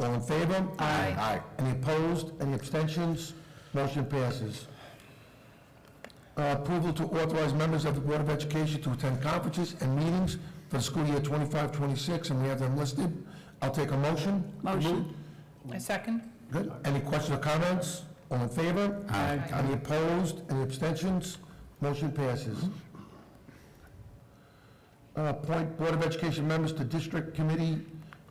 All in favor? Aye. Any opposed? Any abstentions? Motion passes. Uh, Approval to authorize members of the Board of Education to attend conferences and meetings for the school year 25-26, and we have them listed. I'll take a motion. Motion. I second. Good. Any questions or comments? All in favor? Aye. Any opposed? Any abstentions? Motion passes. Uh, Appoint Board of Education members to District Committee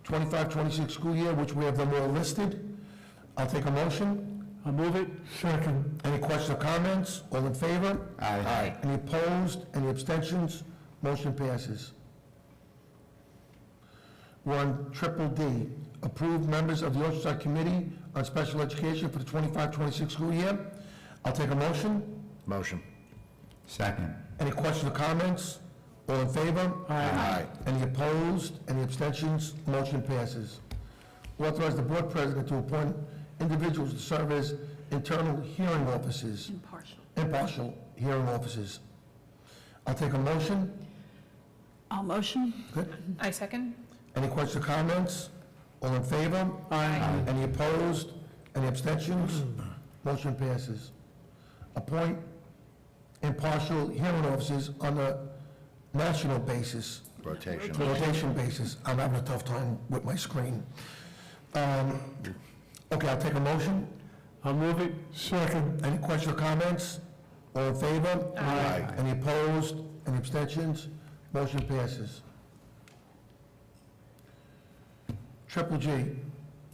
25-26 school year, which we have them all listed. I'll take a motion. I'll move it. Second. Any questions or comments? All in favor? Aye. Any opposed? Any abstentions? Motion passes. We're on triple D, approve members of the Oceanside Committee on Special Education for the 25-26 school year. I'll take a motion. Motion. Second. Any questions or comments? All in favor? Aye. Any opposed? Any abstentions? Motion passes. Authorize the board president to appoint individuals to serve as internal hearing officers, Impartial. impartial hearing officers. I'll take a motion. I'll motion. Good. I second. Any questions or comments? All in favor? Aye. Any opposed? Any abstentions? Motion passes. Appoint impartial hearing officers on a national basis, Rotation. rotation basis. I'm having a tough time with my screen. Um, Okay, I'll take a motion. I'll move it. Second. Any questions or comments? All in favor? Aye. Any opposed? Any abstentions? Motion passes. Triple G,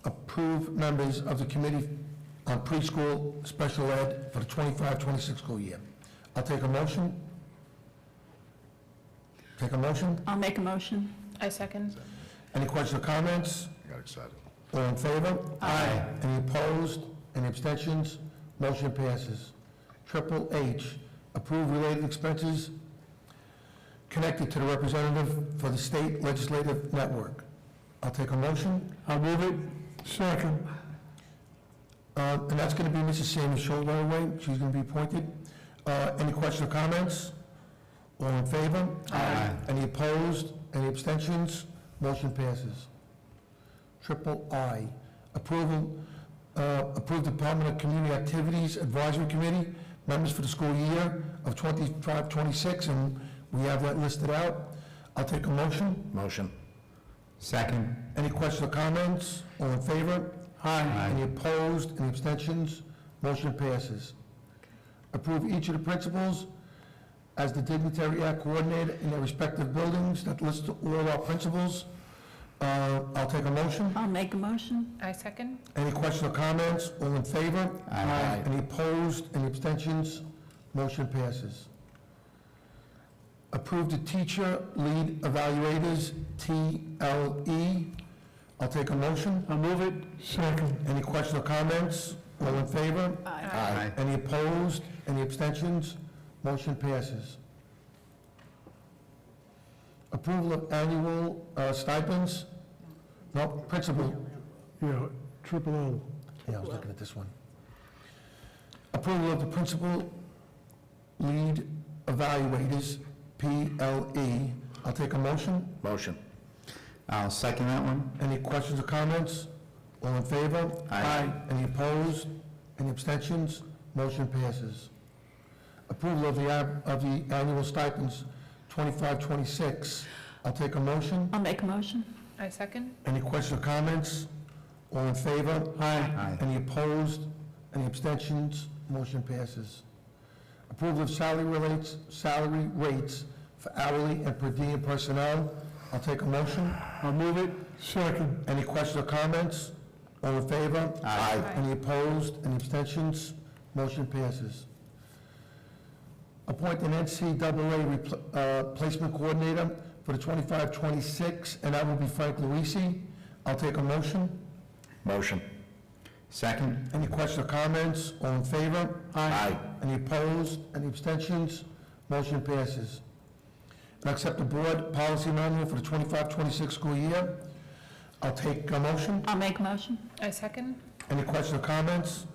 approve members of the Committee on Preschool Special Ed for the 25-26 school year. I'll take a motion. Take a motion. I'll make a motion. I second. Any questions or comments? I got excited. All in favor? Aye. Any opposed? Any abstentions? Motion passes. Triple H, approve related expenses connected to the representative for the state legislative network. I'll take a motion. I'll move it. Second. Uh, And that's going to be Mrs. Sammy Scholler, right? She's going to be appointed. Uh, Any questions or comments? All in favor? Aye. Any opposed? Any abstentions? Motion passes. Triple I, approval, uh, approve Department of Community Activities Advisory Committee, members for the school year of 25, 26, and we have that listed out. I'll take a motion. Motion. Second. Any questions or comments? All in favor? Aye. Any opposed, any abstentions? Motion passes. Approve each of the principals as the dignitary act coordinator in their respective buildings. That lists all our principals. Uh, I'll take a motion. I'll make a motion. I second. Any questions or comments? All in favor? Aye. Any opposed, any abstentions? Motion passes. Approve the teacher lead evaluators, TLE. I'll take a motion. I'll move it. Second. Any questions or comments? All in favor? Aye. Any opposed? Any abstentions? Motion passes. Approval of annual uh, stipends? No, principal. Yeah, triple L. Yeah, I was looking at this one. Approval of the principal lead evaluators, PLE. I'll take a motion. Motion. I'll second that one. Any questions or comments? All in favor? Aye. Any opposed? Any abstentions? Motion passes. Approval of the, ab- of the annual stipends, 25-26. I'll take a motion. I'll make a motion. I second. Any questions or comments? All in favor? Aye. Any opposed? Any abstentions? Motion passes. Approval of salary relates, salary rates for hourly and per diem personnel. I'll take a motion. I'll move it. Second. Any questions or comments? All in favor? Aye. Any opposed? Any abstentions? Motion passes. Appoint an NCAA repl- uh, placement coordinator for the 25-26, and that will be Frank Luisi. I'll take a motion. Motion. Second. Any questions or comments? All in favor? Aye. Any opposed? Any abstentions? Motion passes. And accept the board policy manual for the 25-26 school year. I'll take a motion. I'll make a motion. I second. Any questions or comments?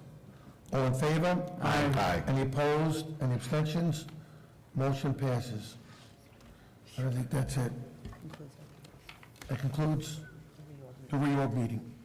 All in favor? Aye. Any opposed? Any abstentions? Motion passes. I don't think that's it. That concludes the reorg meeting.